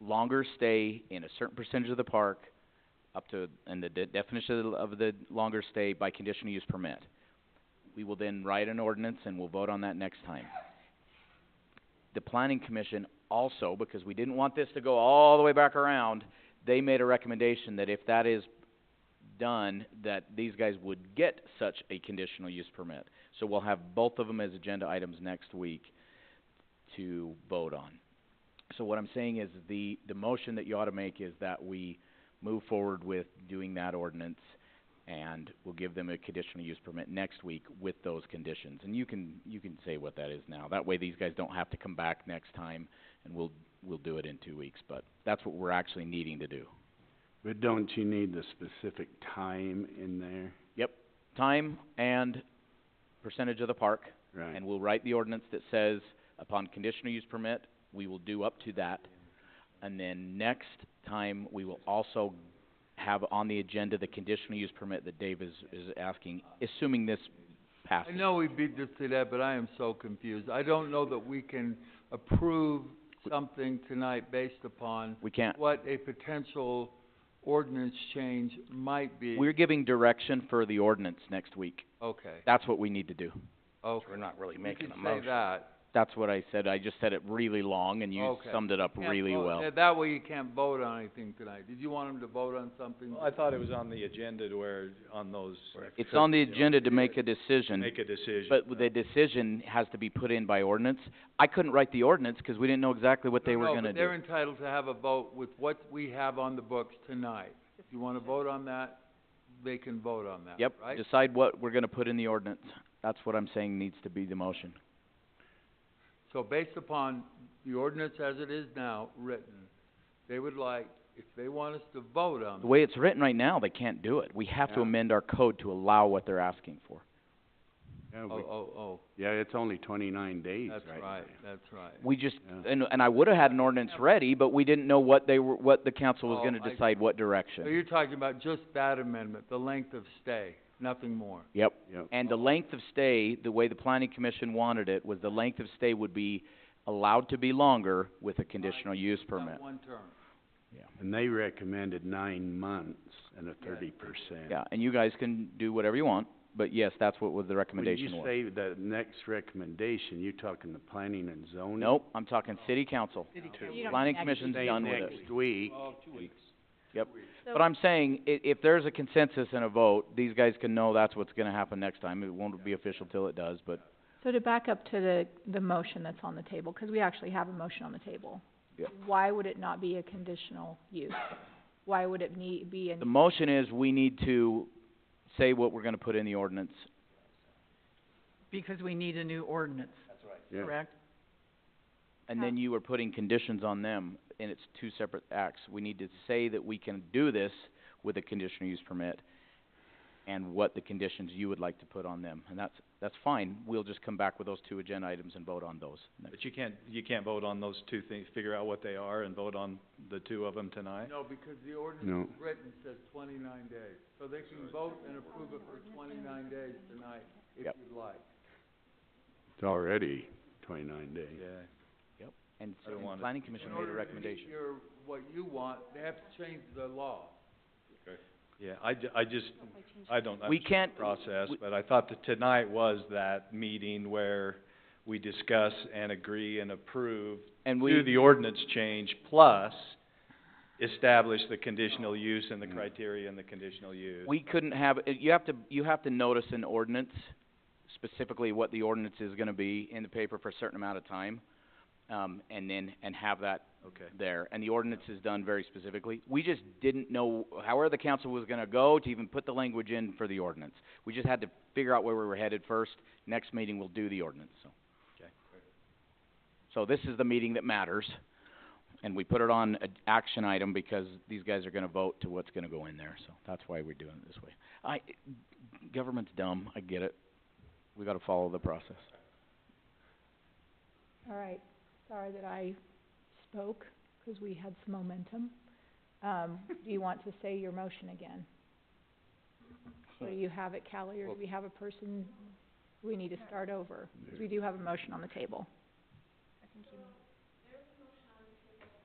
longer stay in a certain percentage of the park, up to, and the de- definition of the- of the longer stay by conditional use permit. We will then write an ordinance and we'll vote on that next time. The planning commission also, because we didn't want this to go all the way back around, they made a recommendation that if that is done, that these guys would get such a conditional use permit. So we'll have both of them as agenda items next week to vote on. So what I'm saying is the, the motion that you ought to make is that we move forward with doing that ordinance and we'll give them a conditional use permit next week with those conditions. And you can, you can say what that is now. That way these guys don't have to come back next time and we'll, we'll do it in two weeks. But that's what we're actually needing to do. But don't you need the specific time in there? Time and percentage of the park. Right. And we'll write the ordinance that says, upon conditional use permit, we will do up to that. And then next time, we will also have on the agenda the conditional use permit that Dave is, is asking, assuming this I passes. know we beat this to that, but I am so confused. I don't know that we can approve something tonight based upon We can't, what a potential ordinance change might be. we're giving direction for the ordinance next week. Okay, That's what we need to do. okay. We're not really You making could a motion. say that. That's what I said. I just said it really long and you Okay. summed it up Can't really vote. well. Yeah, That way you can't vote on anything tonight. Did you want them to vote on something? Well, I thought it was on the agenda to where, on those, It's on the agenda to make a decision. make a decision. But the decision has to be put in by ordinance. I couldn't write the ordinance because we didn't know exactly what they were No, gonna but they're do. entitled to have a vote with what we have on the books tonight. If you wanna vote on that, they can vote on that, Yep, right? decide what we're gonna put in the ordinance. That's what I'm saying needs to be the motion. So based upon the ordinance as it is now written, they would like, if they want us to vote on The it, way it's written right now, they can't do it. We have to Yeah. amend our code to allow what they're asking for. Yeah, oh, we- oh, yeah, it's only twenty-nine oh, days that's right right, now. that's right. We just, Yeah. and, and I would've had an ordinance ready, but we didn't know what they were, what the council was Oh, gonna I- decide what So direction. you're talking about just that amendment, the length of stay, nothing more? Yep. Yep. And the length of stay, the way the planning commission wanted it, was the length of stay would be allowed to be longer with a conditional use permit. Not one term. And they recommended nine months and a thirty percent. Yeah, and you guys can do whatever you want, but yes, that's what was the recommendation was. When you say the next recommendation, you're talking the planning and zoning? Nope, I'm talking city council. Planning commission's Say done with it. next week, But I'm saying, i- if there's a consensus and a vote, these guys can know that's what's gonna happen next time. It won't be official till it does, but So to back up to the, the motion that's on the table, 'cause we actually have a motion on the table. Yeah. Why would it not be a conditional use? Why would it need, be the an, motion is we need to say what we're gonna put in the ordinance. Because we need a new ordinance, yeah. correct? And then you are putting conditions on them, and it's two separate acts. We need to say that we can do this with a conditional use permit and what the conditions you would like to put on them. And that's, that's fine. We'll just come back with those two agenda items and vote on those next. But you can't, you can't vote on those two things, figure out what they are and vote on the two of them tonight? No, because the No. ordinance is written says twenty-nine days, so they can vote and approve it for twenty-nine days tonight, if Yep. you'd like. It's already twenty-nine days. Yeah. And so, don't and want it. planning commission made a In order to recommendation. meet your, what you want, they have to change the law. Yeah, I ju- I just, I don't, We understand can't, the process, we- but I thought that tonight was that meeting where we discuss and agree and approve and do we, the ordinance change plus establish the conditional use and the Mm. criteria and the conditional use. we couldn't have, uh, you have to, you have to notice an ordinance, specifically what the ordinance is gonna be in the paper for a certain amount of time, um, and then, and have that Okay. there, and the ordinance is done very specifically. We just didn't know however the council was gonna go to even put the language in for the ordinance. We just had to figure out where we were headed first. Next meeting, we'll do the ordinance, so. Okay. So this is the meeting that matters, and we put it on a action item because these guys are gonna vote to what's gonna go in there, so that's why we're doing it this way. I, government's dumb, I get it. We gotta follow the process. all right, sorry that I spoke, 'cause we had some momentum. Um, do you want to say your motion again? Or do you have it, Callie, or do we have a person, we need to start over? 'Cause we do have a motion on the table.